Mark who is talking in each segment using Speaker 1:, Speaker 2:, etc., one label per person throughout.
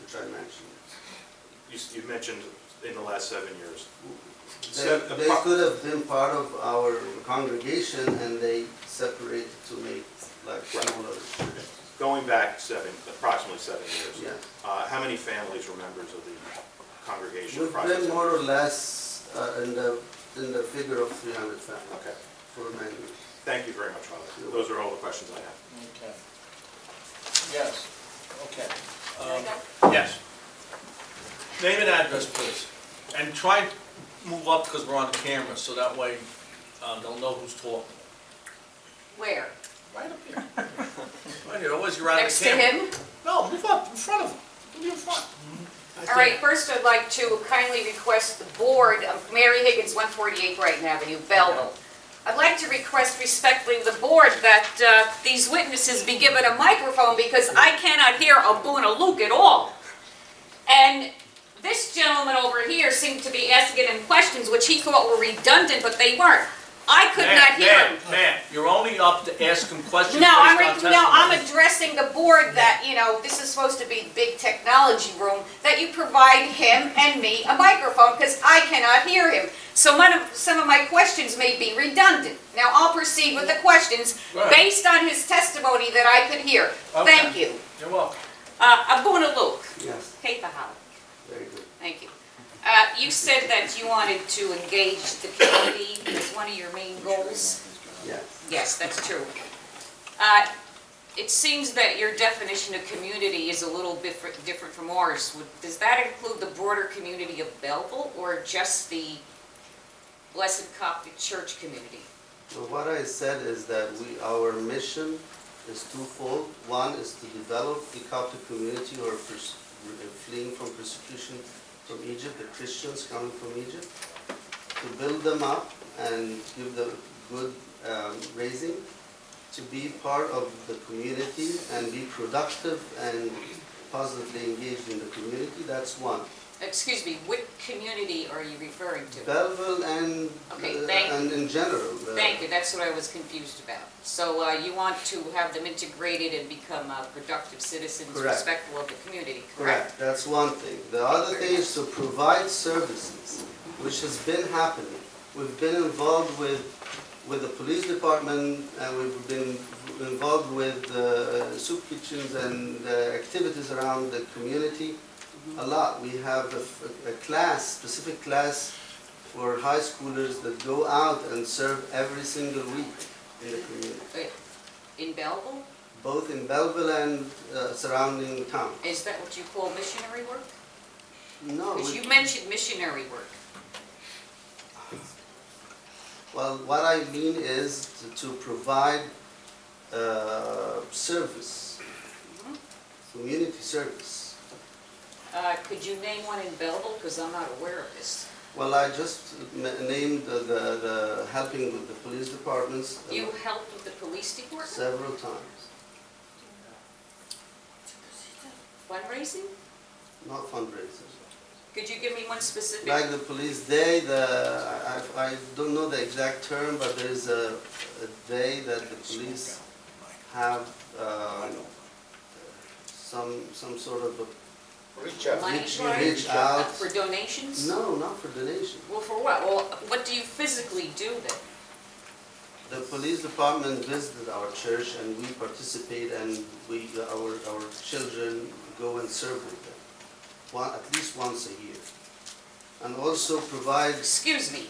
Speaker 1: which I mentioned.
Speaker 2: You, s- you mentioned in the last seven years.
Speaker 1: They,
Speaker 2: Sep-
Speaker 1: they could have been part of our congregation and they separated to make like
Speaker 2: Right.
Speaker 1: smaller churches.
Speaker 2: Going back seven, approximately seven years.
Speaker 1: Yeah.
Speaker 2: Uh, how many families were members of the congregation?
Speaker 1: We've
Speaker 2: approximately?
Speaker 1: been more or less uh, in the, in the figure of three hundred families
Speaker 2: Okay,
Speaker 1: for many. years.
Speaker 2: thank you very much, Father. Those are all the questions I have.
Speaker 3: Okay. Yes, okay.
Speaker 4: Can I
Speaker 3: Um,
Speaker 4: go?
Speaker 3: Yes. Name and address, please. And try and move up because we're on the camera, so that way um, they'll know who's talking.
Speaker 4: Where?
Speaker 3: Right up here. Right here, always you're out of
Speaker 4: Next
Speaker 3: the
Speaker 4: to
Speaker 3: camera.
Speaker 4: him?
Speaker 3: No, move up, in front of him. Move in front.
Speaker 4: All right, first I'd like to kindly request the board of Mary Higgins, 148 Brighton Avenue, Belleville. I'd like to request respectfully the board that uh, these witnesses be given a microphone because I cannot hear a boo and a luke at all. And this gentleman over here seemed to be asking him questions which he thought were redundant, but they weren't. I could
Speaker 3: Ma'am,
Speaker 4: not hear him.
Speaker 3: Ma'am, ma'am, you're only up to ask him questions
Speaker 4: No, I'm,
Speaker 3: based
Speaker 4: re-
Speaker 3: on
Speaker 4: no, I'm
Speaker 3: testimony.
Speaker 4: addressing the board that, you know, this is supposed to be big technology room, that you provide him and me a microphone, because I cannot hear him. So one of, some of my questions may be redundant. Now, I'll proceed with the questions
Speaker 3: Right.
Speaker 4: based on his testimony that I could hear. Thank
Speaker 3: Okay.
Speaker 4: you.
Speaker 3: You're welcome.
Speaker 4: Uh, Abuna Luke,
Speaker 1: Yes,
Speaker 4: Cape Hall.
Speaker 1: very good.
Speaker 4: Thank you. Uh, You said that you wanted to engage the community as one of your main goals.
Speaker 1: Yes,
Speaker 4: Yes, that's true. Uh, It seems that your definition of community is a little bit fr- different from ours. Would- Does that include the broader community of Belleville or just the Blessed Coptic Church community?
Speaker 1: so what I said is that we, our mission is twofold. One is to develop the Coptic community who are pers- fleeing from persecution from Egypt, the Christians coming from Egypt, to build them up and give them good um, raising, to be part of the community and be productive and positively engaged in the community, that's one.
Speaker 4: Excuse me, what community are you referring to?
Speaker 1: Belleville and,
Speaker 4: Okay,
Speaker 1: uh,
Speaker 4: thank-
Speaker 1: and in general. uh,
Speaker 4: Thank you, that's what I was confused about. So uh, you want to have them integrated and become uh, productive citizens,
Speaker 1: Correct.
Speaker 4: respectful of the community, correct?
Speaker 1: Correct, that's one thing. The other thing is to provide services, which has been happening. We've been involved with, with the police department, and we've been involved with uh, soup kitchens and uh, activities around the community a lot. We have a, a class, specific class for high schoolers that go out and serve every single week in the community,
Speaker 4: Uh, In Belleville?
Speaker 1: both in Belleville and uh, surrounding town.
Speaker 4: Is that what you call missionary work?
Speaker 1: No,
Speaker 4: Because
Speaker 1: we-
Speaker 4: you mentioned missionary work.
Speaker 1: Well, what I mean is to- to provide uh, service, Mm-hmm. community service.
Speaker 4: Uh, Could you name one in Belleville, because I'm not aware of this?
Speaker 1: Well, I just n- named the- the the helping with the police departments uh,
Speaker 4: You helped with the police department,
Speaker 1: several times.
Speaker 4: fundraising?
Speaker 1: Not fundraisers.
Speaker 4: Could you give me one specific?
Speaker 1: Like the police day, the, I- I I don't know the exact term, but there is a a day that the police have um, some, some sort of a
Speaker 5: Reach out.
Speaker 4: Money
Speaker 1: reach-
Speaker 4: drive?
Speaker 1: reach
Speaker 4: Uh,
Speaker 1: out.
Speaker 4: For donations?
Speaker 1: No, not for donation.
Speaker 4: Well, for what? Well, what do you physically do then?
Speaker 1: The police department visited our church and we participate and we, our, our children go and serve with them, one, at least once a year. And also provide,
Speaker 4: Excuse me,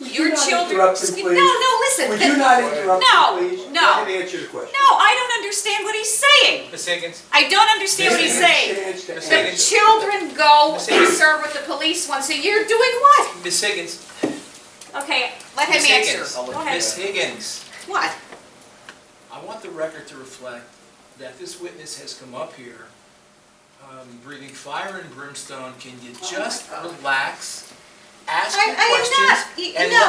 Speaker 6: Would
Speaker 4: your
Speaker 6: you not
Speaker 4: children...
Speaker 6: interrupt him,
Speaker 4: Excuse-
Speaker 6: please?
Speaker 4: No, no, listen.
Speaker 6: Would
Speaker 4: the-
Speaker 6: you not interrupt
Speaker 4: No,
Speaker 6: him, please?
Speaker 4: no.
Speaker 6: Let him answer the question.
Speaker 4: No, I don't understand what he's saying.
Speaker 7: Ms. Higgins,
Speaker 4: I don't understand what he's saying.
Speaker 7: Ms.
Speaker 4: The
Speaker 7: Higgins,
Speaker 4: children go and serve with the police once a year, doing what?
Speaker 7: Ms. Higgins,
Speaker 4: Okay, let him
Speaker 7: Ms.
Speaker 4: answer.
Speaker 7: Higgins,
Speaker 4: Go ahead.
Speaker 7: Ms. Higgins.
Speaker 4: What?
Speaker 7: I want the record to reflect that this witness has come up here um, breathing fire and brimstone. Can you
Speaker 4: Oh my
Speaker 7: just
Speaker 4: God.
Speaker 7: relax, ask
Speaker 4: I,
Speaker 7: your questions?
Speaker 4: I am not,
Speaker 7: and
Speaker 4: Y- no.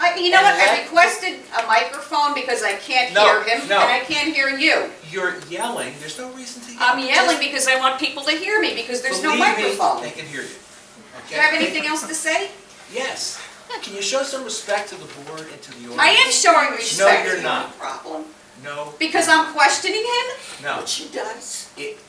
Speaker 4: I, you know
Speaker 7: and
Speaker 4: what, I
Speaker 7: let-
Speaker 4: requested a microphone because I can't
Speaker 7: No,
Speaker 4: hear him, and
Speaker 7: no.
Speaker 4: I can't hear you.
Speaker 7: You're yelling, there's no reason to yell.
Speaker 4: I'm yelling
Speaker 7: Just
Speaker 4: because I want people to hear me, because there's no
Speaker 7: believe me,
Speaker 4: microphone.
Speaker 7: They can hear you.
Speaker 4: Do you have anything else to say?
Speaker 7: Yes. Can you show some respect to the board and to the audience?
Speaker 4: I am showing respect.
Speaker 7: you're not.
Speaker 4: Problem,
Speaker 7: No,
Speaker 4: because I'm questioning him?
Speaker 7: no.
Speaker 6: She does.
Speaker 7: It-